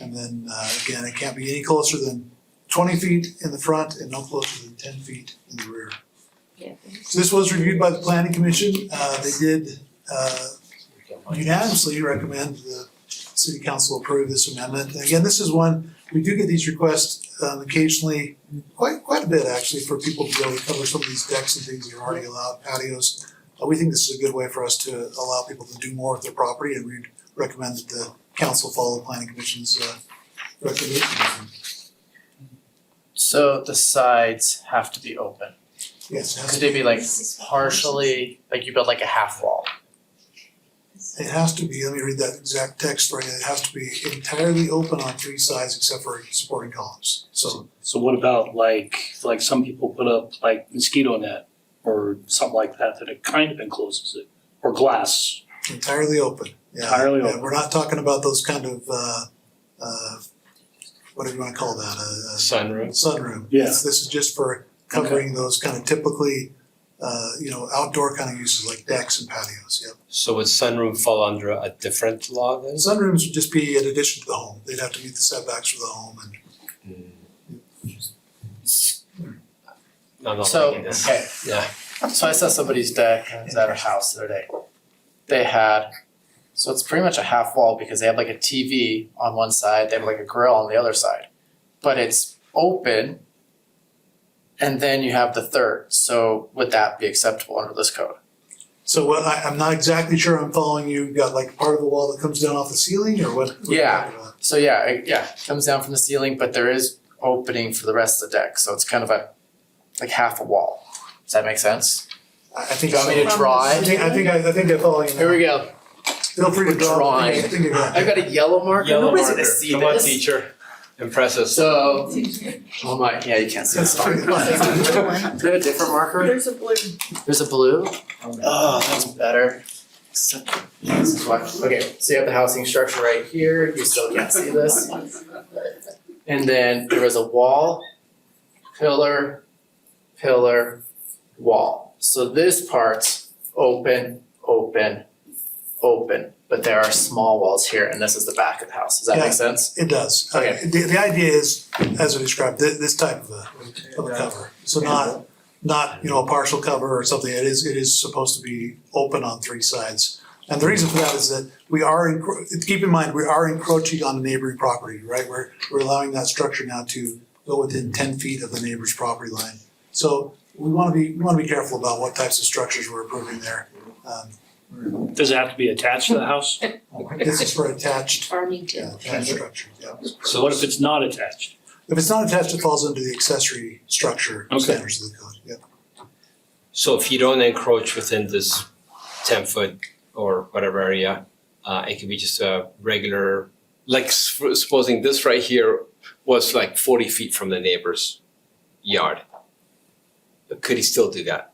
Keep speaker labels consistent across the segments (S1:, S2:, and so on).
S1: And then, uh, again, it can't be any closer than twenty feet in the front and no closer than ten feet in the rear.
S2: Yeah.
S1: So This was reviewed by the planning commission, uh, they did, uh, unanimously recommend the city council approve this amendment. And Again, this is one, we do get these requests um, occasionally, quite, quite a bit actually, for people to be able to cover some of these decks and things that are already allowed, patios. Uh, We think this is a good way for us to allow people to do more with their property and we recommend that the council follow the planning commission's uh, recommendation.
S3: So the sides have to be open.
S1: Yes, it has
S3: Could
S1: to,
S3: they be like partially, like you build like a half wall?
S1: it has to be, let me read that exact text right, it has to be entirely open on three sides except for supporting columns. So
S4: So what about like, like some people put up like mosquito net or something like that, that it kind of encloses it? Or glass,
S1: Entirely open, yeah.
S4: Entirely
S1: Yeah,
S4: open.
S1: We're not talking about those kind of, uh, uh, whatever you wanna call that, a, a
S5: Sunroof.
S1: sunroom.
S4: Yeah.
S1: This this is just for covering those kind of typically, uh, you know, outdoor kind of uses like decks and patios, yep.
S5: So would sunroom fall under a different law then? Mm.
S1: And sunrooms would just be in addition to the home, they'd have to meet the setbacks for the home and
S5: No, no,
S3: So,
S5: like this.
S3: okay,
S5: Yeah.
S3: so I saw somebody's deck, I was at her house the other day. They had, so it's pretty much a half wall because they have like a TV on one side, they have like a grill on the other side. But it's open and then you have the third, so would that be acceptable under this code?
S1: so what, I, I'm not exactly sure I'm following you, you got like part of the wall that comes down off the ceiling or what? what are you
S3: Yeah.
S1: talking about?
S3: So yeah, it- yeah, it comes down from the ceiling, but there is opening for the rest of the deck, so it's kind of a, like half a wall. Does that make sense?
S1: I, I think
S3: Do you want me to
S1: so.
S3: draw
S1: I
S3: it?
S1: think, I think, I I think I follow you now.
S3: Here we go.
S1: Feel free to
S3: We're
S1: draw, I think I
S3: drawing.
S1: think you got it.
S3: I've got a yellow marker.
S5: Yellow
S3: Nobody's
S5: marker.
S3: gonna see
S5: Come on,
S3: this.
S5: teacher. Impress us.
S3: So, oh my, yeah, you can't see this. Sorry. Do they have a different marker?
S2: There's a blue.
S3: There's a blue. Oh, that's better. Except this is why- Okay, so you have the housing structure right here. You still can't see this. And then there was a wall, pillar, pillar, wall. So this part's open, open, open, but there are small walls here, and this is the back of the house. Does that
S1: Yeah.
S3: make sense?
S1: It does. Uh,
S3: Okay.
S1: The, the idea is, as I described, thi- this type of a, of a cover. So not, not, you know, a partial cover or something. It is, it is supposed to be open on three sides. And the reason for that is that we are, encro- keep in mind, we are encroaching on the neighboring property, right? We're, we're allowing that structure now to go within ten feet of the neighbor's property line. So we wanna be, we wanna be careful about what types of structures we're approving there. Um,
S4: does it have to be attached to the house?
S1: This is for attached, yeah,
S2: Farmington.
S1: attached structure, yeah.
S4: So what if it's not attached?
S1: If it's not attached, it falls under the accessory structure
S4: Okay.
S1: standards of the code, yeah.
S5: So if you don't encroach within this ten foot or whatever area, uh, it could be just a regular, like s- supposing this right here was like forty feet from the neighbor's yard. Could he still do that?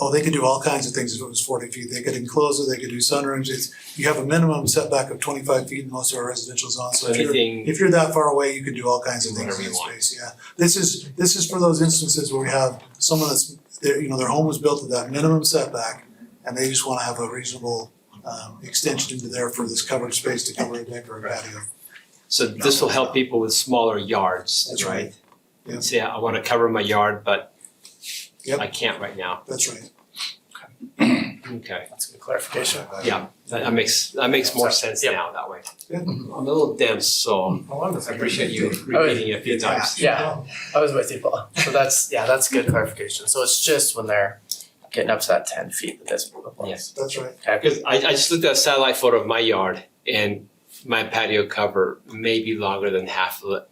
S1: Oh, they could do all kinds of things if it was forty feet, they could enclose it, they could do sunrooms, it's, you have a minimum setback of twenty-five feet in most of our residential zones, so if you're,
S5: Anything,
S1: if you're that far away, you could do all kinds of things
S5: Whatever
S1: in
S5: you
S1: that
S5: want.
S1: space, yeah. This is, this is for those instances where we have someone that's, their, you know, their home was built at that minimum setback, and they just wanna have a reasonable, um, extension into there for this covered space to cover a deck or a patio.
S5: so this will help people with smaller yards,
S1: That's
S5: right?
S1: right. Yeah.
S5: Say, I wanna cover my yard, but
S1: Yep.
S5: I can't right now,
S1: That's right.
S5: okay.
S3: That's a good clarification.
S5: Yeah, that that makes, that makes more sense
S3: Yep.
S5: now that way.
S1: Yeah. Oh,
S5: I'm a little dense, so I appreciate you repeating it a few times.
S3: Yeah. I was with you, Paul. So that's, yeah, that's good clarification. So it's just when they're getting up to that ten feet that this applies.
S1: That's right.
S5: Because I, I just looked at a satellite photo of my yard and my patio cover may be longer than half of the-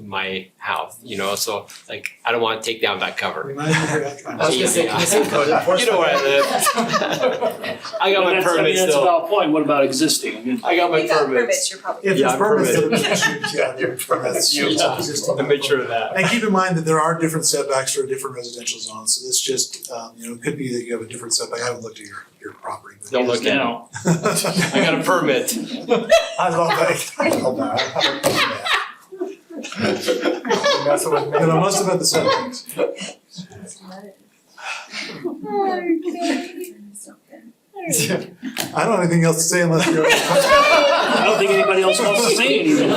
S5: my house, you know, so like, I don't wanna take down that cover.
S1: Remind me of that.
S3: I was gonna say, can you say code
S5: You know where I
S3: live?
S5: I got
S4: That's- I
S5: my
S4: mean,
S5: permits
S4: That's a
S5: though,
S4: valid point, what about existing? I mean,
S5: I got my
S2: You got
S5: permits.
S2: permits, you're probably.
S1: If
S5: Yeah,
S1: there's
S5: I'm
S1: permits,
S5: permitted.
S1: there'll be issues, yeah, there are permits.
S5: Yeah.
S1: It's existing.
S5: I made sure of that.
S1: And keep in mind that there are different setbacks for different residential zones, so this just, um, you know, it could be that you have a different setback, I haven't looked at your, your property. but-
S5: Don't look
S4: you
S5: at it,
S4: know,
S5: I got a permit.
S1: I love that. I love that. I haven't done that. Then I must have had the setbacks. I don't have anything else to say unless you're.
S4: I don't think anybody else wants to say anything.